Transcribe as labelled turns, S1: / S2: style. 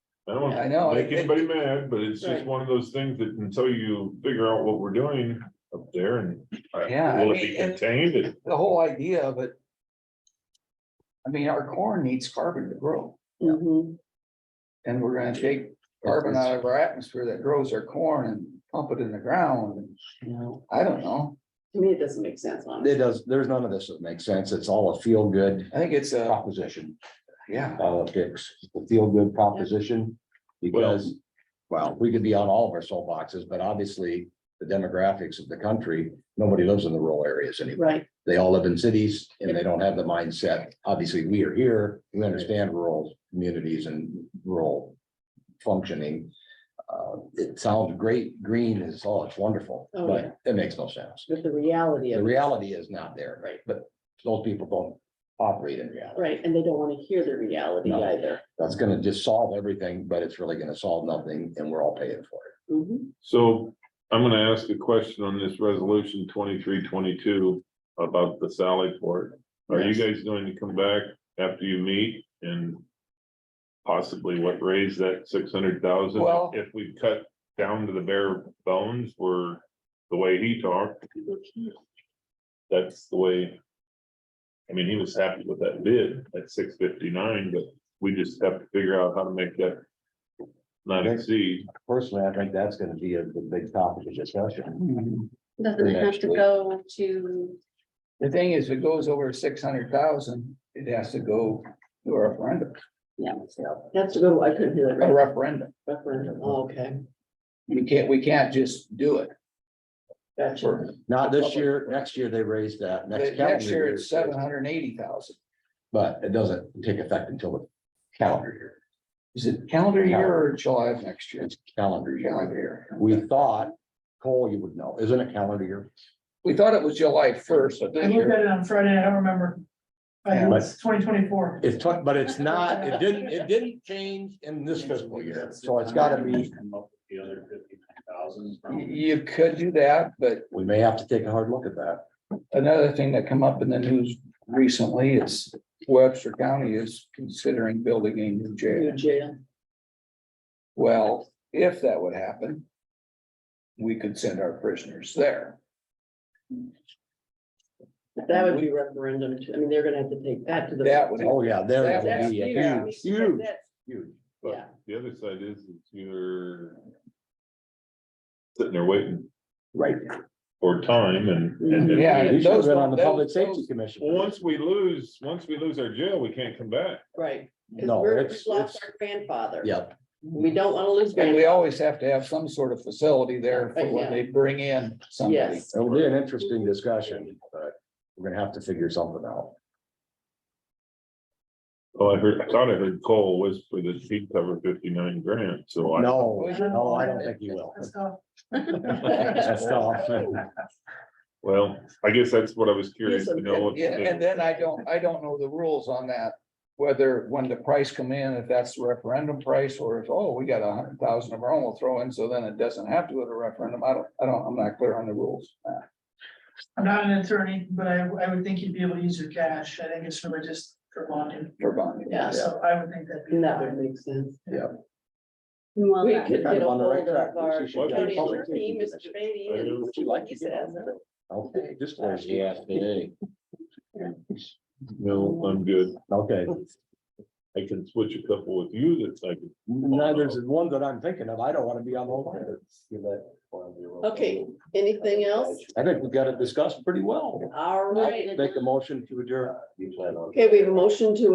S1: I don't
S2: I know,
S1: wanna make
S2: it-
S1: anybody mad, but it's just
S2: Right.
S1: one of those things that until you figure out what we're doing up there and. uh,
S2: Yeah, I
S1: Will it be
S2: mean, and-
S1: contained? It-
S2: the whole idea of it. I mean, our corn needs carbon to grow,
S3: Mhm.
S2: and we're gonna take carbon out of our atmosphere that grows our corn and pump it in the ground, and, you know, I don't know.
S3: To me, it doesn't make sense, honestly.
S4: It does, there's none of this that makes sense. It's all a feel good
S2: I think it's a,
S4: proposition uh,
S2: yeah,
S4: politics, the feel good proposition. Because, well, we could be on all of our soapboxes, but obviously the demographics of the country, nobody lives in the rural areas anymore.
S3: Right,
S4: They all live in cities and they don't have the mindset. Obviously, we are here. We understand rural communities and rural functioning. Uh, it sounds great. Green is, oh, it's wonderful,
S3: Oh,
S4: but it makes no sense.
S3: but the reality
S4: The
S3: of, it,
S4: reality is not there, right? But those people don't operate in reality.
S3: right, and they don't wanna hear the reality
S4: No.
S3: either.
S4: That's gonna just solve everything, but it's really gonna solve nothing and we're all paying for it.
S3: Mhm.
S1: So I'm gonna ask a question on this resolution twenty-three, twenty-two about the Sally Port. Are you guys going to come back after you meet and possibly what raise that six hundred thousand?
S2: Well-
S1: If we cut down to the bare bones, we're, the way he talked, that's the way. I mean, he was happy with that bid at six fifty-nine, but we just have to figure out how to make that not exceed.
S4: Personally, I think that's gonna be a the big topic of discussion.
S5: Doesn't
S4: Yeah,
S5: have to
S4: actually.
S5: go to,
S2: the thing is, if it goes over six hundred thousand, it has to go to a referendum,
S5: yeah,
S3: That's a good, one. I couldn't hear that
S2: a
S3: right.
S2: referendum.
S3: Referendum. Oh, Okay,
S2: We can't, we can't just do it.
S3: gotcha.
S2: For-
S4: Not this year, next year they raised that.
S2: Next
S4: calendar
S2: year,
S4: year.
S2: it's seven hundred and eighty thousand.
S4: But it doesn't take effect until the calendar year,
S2: Is it calendar year or July of next year?
S4: it's calendar year.
S2: Calendar year.
S4: We thought, Cole, you would know, isn't it calendar year?
S2: We thought it was July first, but
S6: I
S2: this
S6: looked
S2: year,
S6: at it on Friday, I don't remember. I think
S2: Yeah.
S6: it's twenty twenty-four.
S4: It's, twen- but it's not, it didn't, it didn't change in this fiscal year, so it's gotta be,
S7: The other fifty-nine thousand.
S2: you could do that, but
S4: we may have to take a hard look at that.
S2: Another thing that come up in the news recently is Webster County is considering building a new
S3: New
S2: jail.
S3: jail.
S2: Well, if that would happen. We could send our prisoners there.
S3: That would be referendum, too. I mean, they're gonna have to take that to the.
S2: That would,
S4: Oh, yeah, there.
S2: That
S4: will
S3: That's
S4: be a
S3: huge. I mean,
S4: huge, huge,
S3: that's-
S4: huge.
S3: Yeah.
S1: But the other side is, is you're. Sitting there waiting
S4: Right.
S1: for time and. and if we-
S2: Yeah.
S4: We should have
S2: those
S4: been on the
S2: don't-
S4: Public
S2: those-
S4: Safety
S1: Well,
S4: Commission.
S1: once we lose, once we lose our jail, we can't come back.
S3: Right. 'Cause
S4: No,
S3: we're-
S4: it's,
S3: we lost
S4: it's,
S3: our Grandfather.
S4: yeah,
S3: We don't wanna lose.
S2: and we
S3: grandfather.
S2: always have to have some sort of facility there for when they bring in somebody.
S3: Yes,
S4: it'll be an interesting discussion, but we're gonna have to figure something out.
S1: Oh, I heard, I thought I heard Cole whisper that he'd cover fifty-nine grand, so I.
S4: No, no, I don't think you will.
S6: That's tough.
S4: That's tough.
S1: Well, I guess that's what I was curious to know. if-
S2: Yeah, and then I don't, I don't know the rules on that, whether when the price come in, if that's the referendum price, or if, oh, we got a hundred thousand of our own, we'll throw in, so then it doesn't have to go to referendum, I don't, I don't, I'm not clear on the rules. uh,
S6: I'm not an attorney, but I, I would think you'd be able to use your cash, I think it's really just for bonding,
S2: For bonding.
S3: Yeah.
S6: so I would think that'd be.
S3: and that would make sense.
S5: well,
S3: We
S5: that-
S3: could
S4: kind
S3: get
S4: of
S3: a
S4: on the right
S3: hold
S4: track.
S3: of
S4: We
S3: our
S4: should get a
S3: county
S4: public
S3: attorney,
S4: safety
S3: Mr. Beatty,
S1: I
S3: and
S1: would
S3: see what he
S4: to get
S3: says.
S4: Okay, just. Yeah, today.
S1: No, I'm good.
S4: Okay,
S1: I can switch a couple with you that's like.
S4: now there's one that I'm thinking of. I don't wanna be on the line.
S3: Okay, anything else?
S4: I think we've got it discussed pretty well.
S3: All right.
S4: Make a motion to adjourn.
S3: Okay, we have a motion to